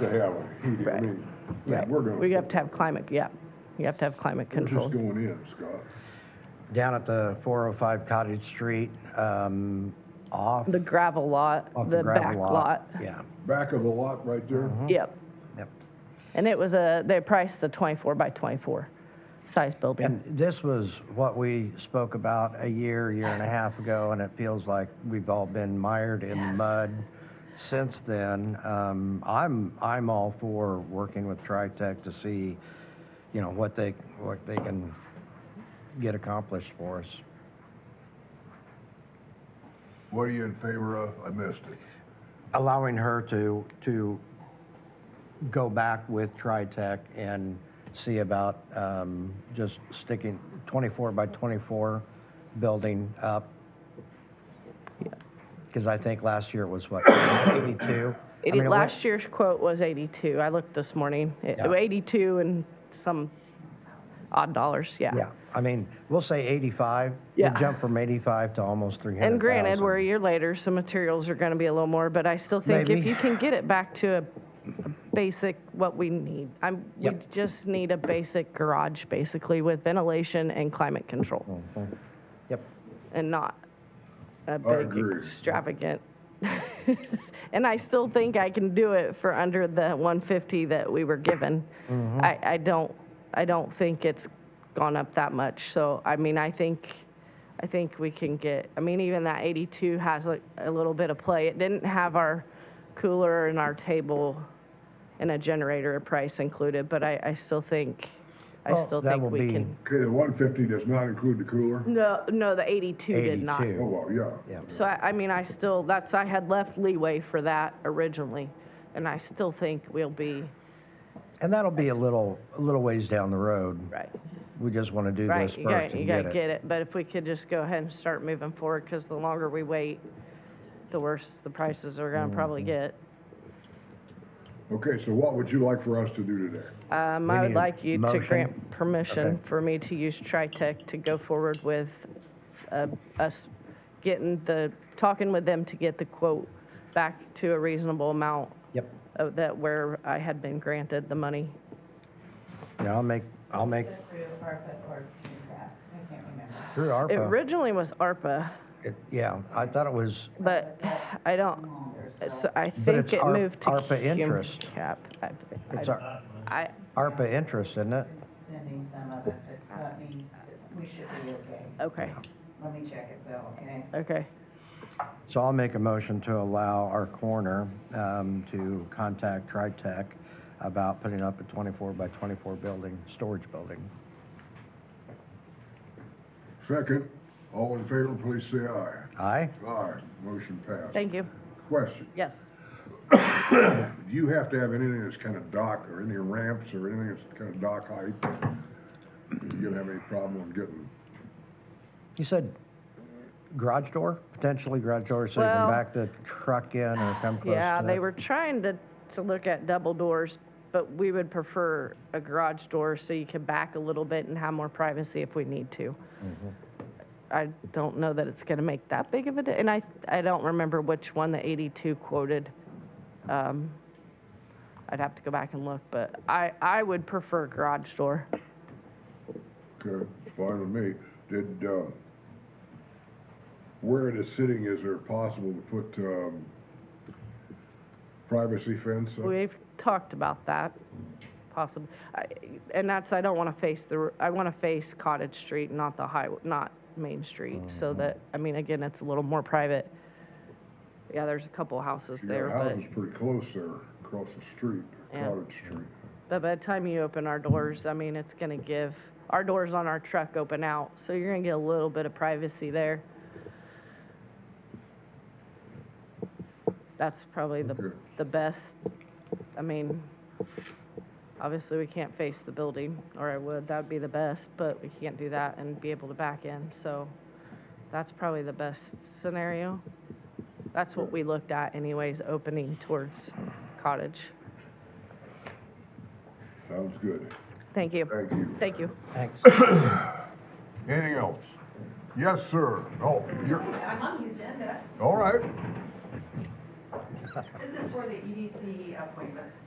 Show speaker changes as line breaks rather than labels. to have a heated, I
Right.
mean,
Right.
we're gonna.
We have to have climate, yeah. You have to have climate
We're just
control.
going in, Scott.
Down at the 405 Cottage Street, um, off,
The gravel lot,
off
the
the
back
gravel
lot.
lot. Yeah,
Back of the lot right there.
Yep.
yep.
And it was a, they priced the 24 by 24 size building.
And this was what we spoke about a year, year and a half ago, and it feels like we've all been mired in the
Yes.
mud since then. Um, I'm, I'm all for working with TriTech to see, you know, what they, what they can get accomplished for us.
What are you in favor of? I missed it.
allowing her to, to go back with TriTech and see about um, just sticking 24 by 24 building up. Because I think last year it was what, 82? I mean,
Eighty-
it went-
Last year's quote was 82. I looked this morning. It-
Yeah.
82 and some odd dollars, yeah.
Yeah, I mean, we'll say 85.
Yeah.
It jumped from 85 to almost 300,000.
And granted, we're a year later, so materials are going to be a little more, but I still think if
Maybe.
you can get it back to a a basic, what we need. I'm, we
Yep.
just need a basic garage, basically, with ventilation and climate
Mm-hmm.
control,
Yep,
and not a big
agree.
extravagant. And I still think I can do it for under the 150 that we were given.
Mm-hmm.
I, I don't, I don't think it's gone up that much. So, I mean, I think, I think we can get, I mean, even that 82 has a, a little bit of play. It didn't have our cooler and our table and a generator price included, but I, I still think, I
Well,
still
Oh, that
think
will
we
be-
can.
Okay, the one fifty does not include the cooler?
No, no, the 82 did not.
82.
Oh, well, yeah.
yep.
So I, I mean, I still, that's, I had left leeway for that originally, and I still think we'll be,
And that'll be a little, a little ways down the road.
right,
We just want to do this
right,
first
you gotta, you
and get
gotta
it.
get it, but if we could just go ahead and start moving forward, because the longer we wait, the worse the prices are gonna probably
Mm-hmm.
get.
Okay, so what would you like for us to do today?
Um,
We
I would
need a
like you to
motion?
grant permission
Okay.
for me to use TriTech to go forward with, uh, us getting the, talking with them to get the quote back to a reasonable amount
Yep.
of that where I had been granted the money.
Yeah, I'll make, I'll make,
Through ARPA or through that, I can't remember.
through
It
ARPA,
originally was ARPA,
it- yeah, I thought it was,
but I don't,
Longer,
so I think
it's
it
Ar-
moved to.
ARPA
cum-
interest.
Cap. I- I-
it's Ar-
I,
ARPA interest, isn't it?
Spending some of it, but let me, we should be okay.
okay,
Let me check it though, okay?
okay.
So I'll make a motion to allow our coroner um, to contact TriTech about putting up a 24 by 24 building, storage building.
Second, all in favor, please say aye.
Aye?
Aye, motion passed.
Thank you.
Question,
Yes.
do you have to have anything that's kind of dock or any ramps or anything that's kind of dock height? You gonna have any problem on getting,
You said garage door, potentially garage door, so you
Well-
can back the truck in or come close to it?
Yeah, they were trying to, to look at double doors, but we would prefer a garage door so you can back a little bit and have more privacy if we need to.
Mm-hmm.
I don't know that it's gonna make that big of a, di- and I, I don't remember which one the eighty-two quoted. Um, I'd have to go back and look, but I, I would prefer garage door.
okay, fine with me. Did, um, where it is sitting, is there possible to put, um, privacy fence? up?
We've talked about that, possibly. And that's, I don't want to face the, r- I want to face Cottage Street, not the highway, not Main Street, so that, I mean, again, it's a little more private. Yeah, there's a couple houses there,
Your
but,
house is pretty close there, across the street,
Yeah.
Cottage Street.
but by the time you open our doors, I mean, it's going to give, our doors on our truck open out, so you're going to get a little bit of privacy there. That's probably the,
Okay.
the best, I mean, obviously, we can't face the building, or I would, that'd be the best, but we can't do that and be able to back in, so that's probably the best scenario. That's what we looked at anyways, opening towards cottage.
Sounds good.
Thank you.
Thank you.
Thank you.
Thanks.
Anything else? Yes, sir. Oh, you're,
I'm on the agenda.
all right.
This is for the EDC E appointments.